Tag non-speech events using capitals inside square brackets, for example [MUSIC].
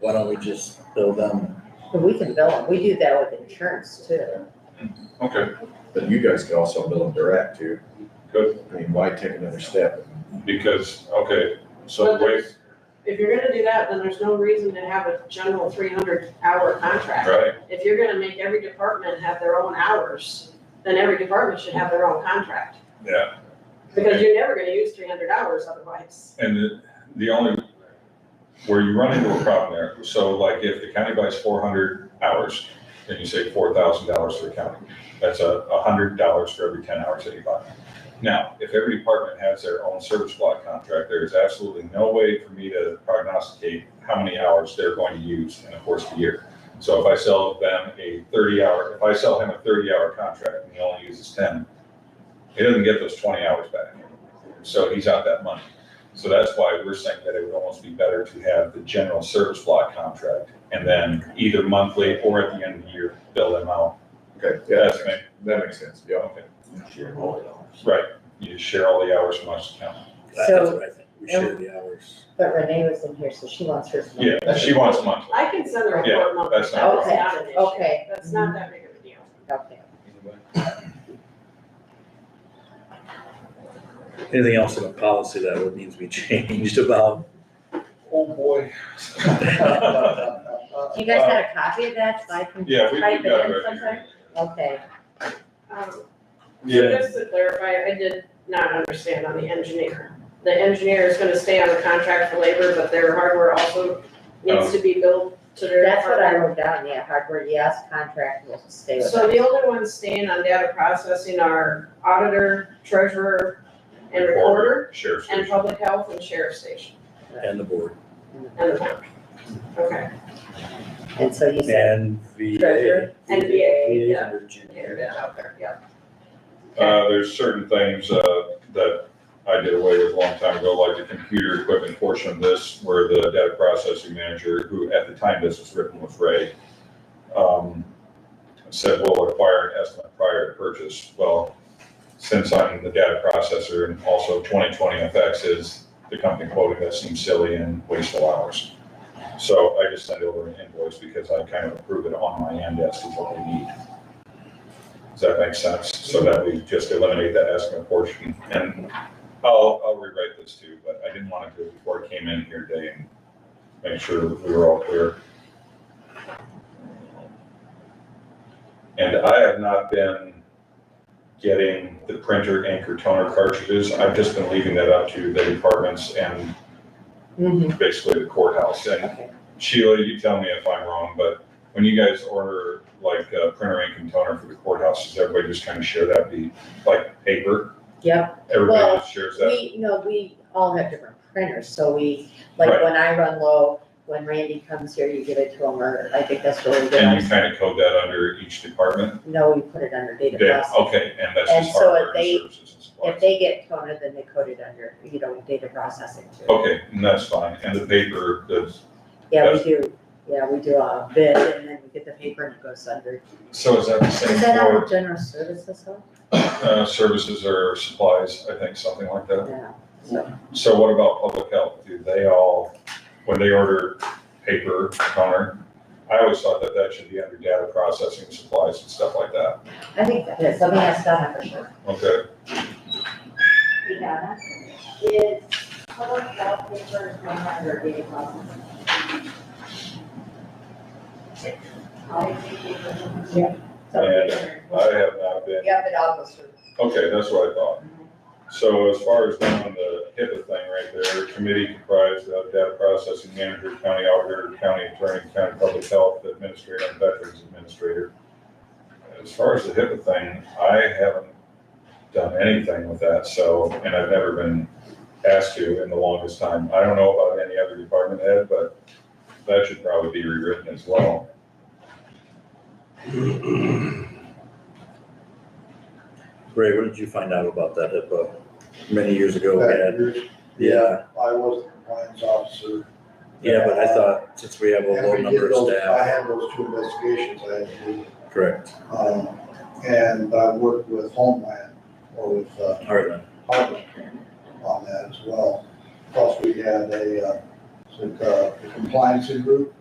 why don't we just um, bill them? But we can bill them, we do that with insurance too. Okay, But you guys could also bill them direct too. Good. I mean, why take another step? because, okay, so But wait, there's- If you're gonna do that, then there's no reason to have a general three hundred hour contract. right, If you're gonna make every department have their own hours, then every department should have their own contract. yeah. Because you're never gonna use three hundred hours otherwise. And the, the only, where you run into a problem there, so like if the county buys four hundred hours, then you say four thousand dollars for the county. That's a, a hundred dollars for every ten hours that you buy. Now, if every department has their own service block contract, there is absolutely no way for me to prognosticate how many hours they're going to use in the course of the year. So if I sell them a thirty hour, if I sell him a thirty hour contract and he only uses ten, he doesn't get those twenty hours back. So he's out that money. So that's why we're saying that it would almost be better to have the general service block contract and then either monthly or at the end of the year, bill them out. Okay, yeah, That's that me. makes- that makes sense, yeah. Okay. Share all the hours. Right, you share all the hours from us to count. That's So, what I think, we share the hours. but Renee was in here, so she wants hers. to- Yeah, she wants monthly. I can send a Yeah, report monthly, that's that's not a problem. not an issue. Okay, That's not that big of a deal. okay. Anything else in the policy that would need to be [LAUGHS] changed about? [LAUGHS] Oh, boy. Do you guys have a copy of that, so I can [LAUGHS] Uh, Yeah, we, we type it got in it right sometime? here. Okay, Um, so Yeah, Just to clarify, I did not understand on the engineer. The engineer is gonna stay on the contract for labor, but their hardware also Oh. needs to be billed to their. that's what I department. wrote down, yeah, hardware, yes, contract will stay with So us. the only ones staying on data processing are auditor, treasurer, and recorder, sheriff's and station. public health and sheriff station, And the board, and the town. Okay, And so you said, and VA. Treasurer. And VA, VA is yeah. under June. there it is out there, yeah. Uh, there's certain things, uh, that I did away with a long time ago, like the computer equipment portion of this, where the data processing manager, who at the time this was written was Ray, um, said, we'll require an estimate prior to purchase. Well, since I'm the data processor and also twenty twenty FX is the company quoting that seems silly and wasteful hours. So I just sent over an invoice because I kind of approve it on my end as to what we need. Does that make sense? So that we just eliminate that estimate portion. And I'll, I'll rewrite this too, but I didn't want to do it before I came in here today and make sure that we were all clear. And I have not been getting the printer ink or toner cartridges. I've just been leaving that up to the departments and mhm, basically the courthouse. And okay, Sheila, you tell me if I'm wrong, but when you guys order like uh, printer ink and toner for the courthouse, does everybody just kind of share that, be like paper? yep. Well, Everybody just shares that? We, no, we all have different printers, so we, like, Right. when I run low, when Randy comes here, you give it to him, or I think that's really good. And you kind of code that under each department? No, we put it under data Yeah, processing. okay, and that's And just so if hardware and they- services and If supplies. they get toner, then they code it under, you know, data processing too. Okay, and that's fine. And the paper, the, Yeah, we do, yeah, we do a bid and then we get the paper and it goes under. so is that the same Is that our for general services though? uh, services or supplies, I think, something like that? Yeah, so, So what about public health? Do they all, when they order paper, toner? I always thought that that should be under data processing supplies and stuff like that. I think that is, let me ask Donna for sure. Okay, Donna, is public health paper going under data processing? Yeah. Yeah. I have not been, Yep, it all goes through. okay, that's what I thought. So as far as down on the HIPAA thing right there, committee comprised of data processing manager, county auditor, county attorney, county public health administrator, and veterans administrator. As far as the HIPAA thing, I haven't done anything with that, so, and I've never been asked to in the longest time. I don't know about any other department head, but that should probably be rewritten as well. Ray, what did you find out about that HIPAA many years ago? we that had- year, Uh, Yeah, I was the compliance officer. yeah, but I thought since we have a And low we did number of those- I staff, had those two investigations I had to do, correct, um, and I worked with Homeland or with, uh, Heartland, Harvard on that as well. Plus, we had a, uh, uh, compliance group